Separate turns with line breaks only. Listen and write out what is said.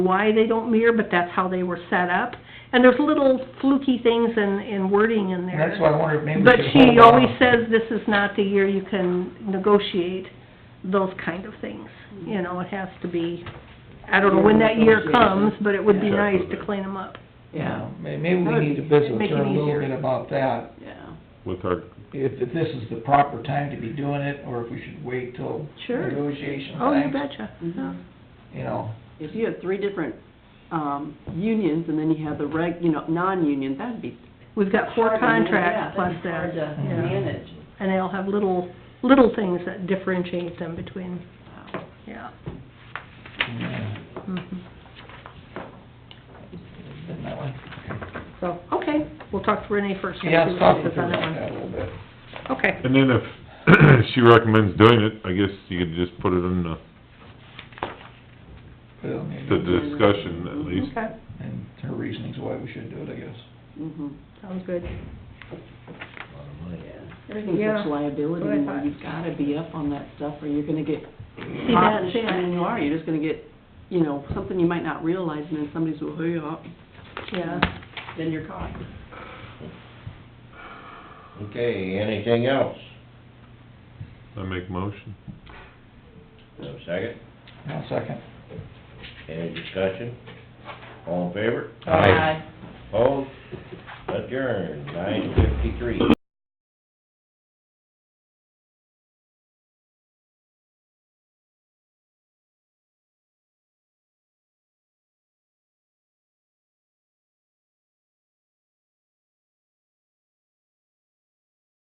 why they don't mirror, but that's how they were set up. And there's little fluky things and, and wording in
And
there.
that's why I wondered if maybe we
But
should
she
hold
always
off.
says this is not the year you can negotiate those kind of things.
Mm-hmm.
You know, it has to be, I don't know when that year comes, but it would be
Yeah.
nice to clean them up.
Yeah,
Yeah,
may- maybe we
That'd
need to
be-
visit with
make it
her a little
easier.
bit about that,
yeah.
with our,
if, if this is the proper time to be doing it, or if we should wait till
Sure.
negotiation
Oh, you
time,
betcha.
Mm-hmm.
Yeah.
you know.
If you have three different, um, unions and then you have the reg, you know, non-union, that'd be.
We've got four
hard to manage.
contracts plus that,
Yeah, that'd be hard to
Yeah.
manage.
and they'll have little, little things that differentiate them between,
Wow.
yeah.
yeah,
Mhm.
Isn't that way?
So, okay, we'll talk to Renee first. and
Yeah,
see what
stop
she says
and think
on that one.
about that a little bit.
Okay.
and then if she recommends doing it, I guess you could just put it in the,
Put it on the
the
agenda
discussion at least.
Okay,
And her reasonings why we should do it, I guess.
Mhm.
sounds good.
Everything's
Yeah,
such liability,
what I
and
thought.
you've gotta be up on that stuff or you're gonna get
See that,
punished.
see
I mean,
that?
you are, you're just gonna get, you know, something you might not realize and then somebody's, well, hey, uh,
Yeah.
then you're caught.
Okay, anything else?
I make motion.
No second?
Now, second.
Any discussion? All in favor?
Aye.
Opposed? Adjourned, nine fifty-three.